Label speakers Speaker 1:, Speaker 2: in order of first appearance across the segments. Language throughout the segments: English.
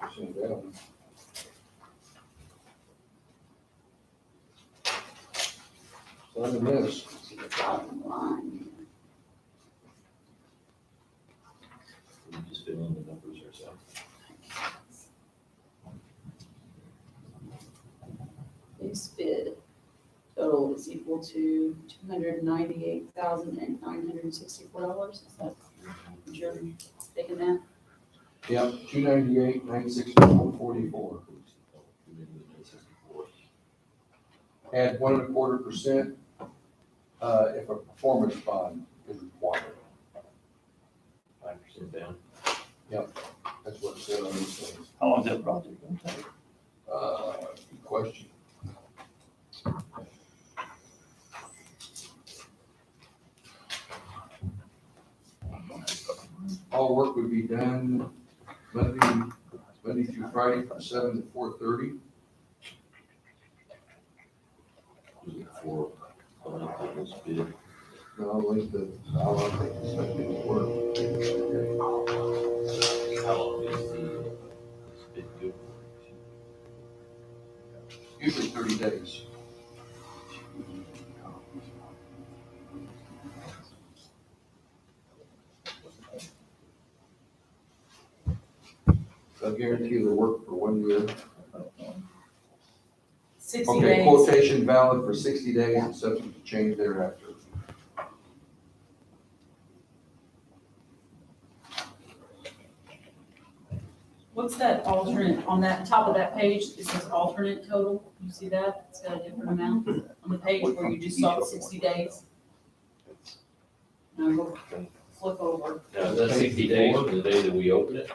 Speaker 1: um, so I missed.
Speaker 2: We Just fill in the numbers ourselves.
Speaker 3: Base bid total is equal to two hundred ninety-eight thousand and nine hundred and sixty-four dollars, is that, you're taking that?
Speaker 1: Yep, two ninety-eight, nine sixty-four, forty-four. Add one and a quarter percent, uh, if a performance bond is required.
Speaker 2: Five percent down.
Speaker 1: That's what it said on these things.
Speaker 2: How long is that project gonna take?
Speaker 1: Uh, good question. All work would be done Monday, Monday through Friday from seven to four thirty.
Speaker 2: Was it four, going up on this bid?
Speaker 1: No, I'll leave the, I'll update this, I didn't work.
Speaker 2: How long is the this bid good?
Speaker 1: Usually thirty days. I guarantee the work for one year.
Speaker 4: Sixty
Speaker 1: Okay,
Speaker 4: days,
Speaker 1: quotation valid for sixty days and subject to change thereafter.
Speaker 4: what's that alternate, on that top of that page, it says alternate total, you see that? It's got a different amount on the page where you just saw the sixty days. No, we'll flip over,
Speaker 2: Now, is that sixty days from the day that we open it?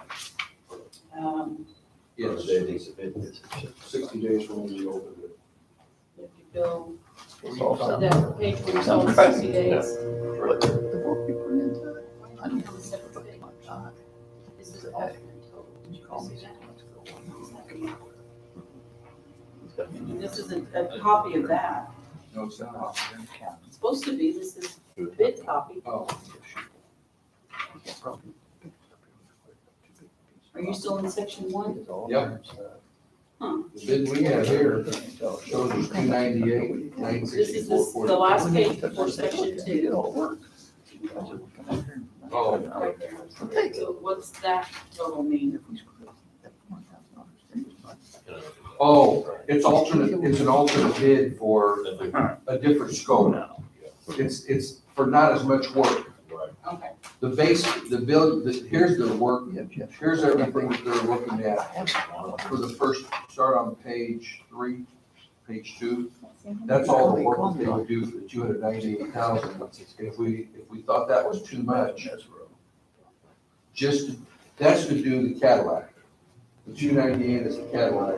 Speaker 4: um,
Speaker 2: Or
Speaker 1: Yes,
Speaker 2: The day they submit it?
Speaker 1: sixty days from when we opened it.
Speaker 4: if you go
Speaker 5: It's
Speaker 4: to
Speaker 5: also
Speaker 4: that page where you saw the sixty days.
Speaker 5: what the work we put into it. I don't
Speaker 3: On the separate
Speaker 5: put
Speaker 3: page,
Speaker 5: my time.
Speaker 3: this is the alternate total.
Speaker 5: You call me. It's got me in
Speaker 4: This isn't a copy of that,
Speaker 1: No, it's
Speaker 5: the
Speaker 1: not.
Speaker 5: house and county.
Speaker 3: It's supposed to be, this is bid copy.
Speaker 1: Oh,
Speaker 5: It's probably-
Speaker 3: Are you still in section one?
Speaker 5: It's all
Speaker 1: Yep.
Speaker 5: there, so-
Speaker 1: the bid we have here
Speaker 5: So-
Speaker 1: shows us two ninety-eight, nine
Speaker 4: this is
Speaker 1: sixty-four,
Speaker 4: this- the
Speaker 1: forty.
Speaker 4: last page before section
Speaker 5: It
Speaker 4: two.
Speaker 5: all works. That's what we come up here and-
Speaker 1: Oh.
Speaker 4: Right there. So what's that total mean?
Speaker 5: If we screw up, that $4,000 thing is not-
Speaker 1: Oh, it's alternate, it's an alternate bid for
Speaker 2: Right.
Speaker 1: a different scope. It's, it's for not as much work.
Speaker 4: Okay,
Speaker 1: The base, the build, the- here's the work,
Speaker 5: Yep, yep.
Speaker 1: here's everything that they're looking at. For the first, start on page three, page two. That's all the work that they would do for the two hundred ninety-eight thousand. If we, if we thought that was too much, just, that's to do the Cadillac. The two ninety-eight is the Cadillac.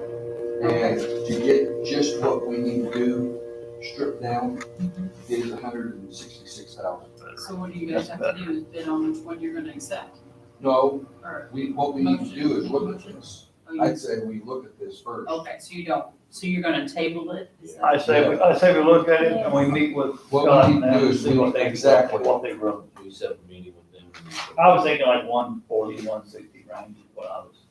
Speaker 1: And to get just what we need to do, stripped down, is hundred and sixty-six thousand.
Speaker 4: so what do you guys have to do is bid on which one you're gonna accept?
Speaker 1: No,
Speaker 4: Or,
Speaker 1: we, what we need to do is look at this.
Speaker 4: oh, you-
Speaker 1: I'd say we look at this first.
Speaker 4: okay, so you don't, so you're gonna table it? Is that-
Speaker 6: I say, we- I say we look at it and we meet with
Speaker 1: What
Speaker 6: Scott
Speaker 1: we need
Speaker 6: and
Speaker 1: to do is,
Speaker 6: see what
Speaker 1: we-
Speaker 6: they,
Speaker 1: exactly,
Speaker 6: what they wrote.
Speaker 2: We set a meeting with them.
Speaker 6: I was thinking like one forty, one sixty range is what I was,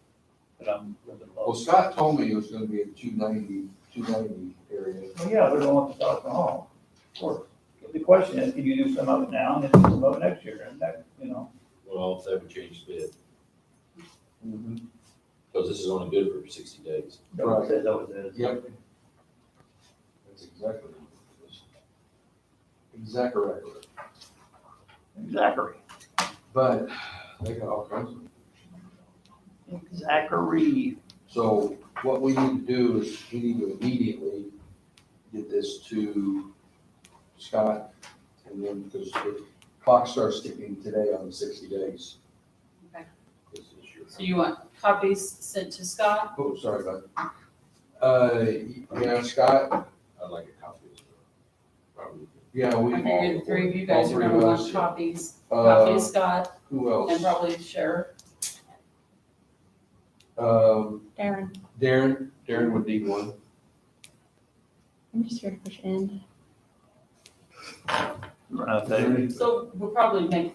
Speaker 6: but I'm a little
Speaker 1: well,
Speaker 6: low.
Speaker 1: Scott told me it was gonna be a 290 290 area.
Speaker 6: Well, Oh, yeah, we don't want to start from home, of course. But The question is, can you do some of it now and then do some of it next year and that, you know?
Speaker 2: Well, if that would change bid, Mm-hmm.
Speaker 1: Mhm.
Speaker 2: because this is only good for sixty days.
Speaker 6: that was it, That was it.
Speaker 1: Yep. That's exactly. what it is. Exactly right.
Speaker 5: Zachary,
Speaker 1: But they got all kinds of.
Speaker 5: Zachary,
Speaker 1: So what we need to do is we need to immediately get this to Scott and then because the clock starts ticking today on the sixty days.
Speaker 4: Okay.
Speaker 1: This is your-
Speaker 4: So you want copies sent to Scott?
Speaker 1: Oh, sorry about that. Uh, yeah, Scott,
Speaker 2: I'd like a copy as well. Probably.
Speaker 1: yeah, we.
Speaker 4: I figured the three of you
Speaker 1: all
Speaker 4: guys are
Speaker 1: three
Speaker 4: gonna
Speaker 1: of
Speaker 4: want
Speaker 1: us.
Speaker 4: copies, copy to
Speaker 1: Uh,
Speaker 4: Scott
Speaker 1: who
Speaker 4: and
Speaker 1: else?
Speaker 4: probably the sheriff.
Speaker 1: Um,
Speaker 7: Darren,
Speaker 1: Darren, Darren would need one.
Speaker 7: I'm just here to push end.
Speaker 6: Right, I think.
Speaker 4: So we'll probably make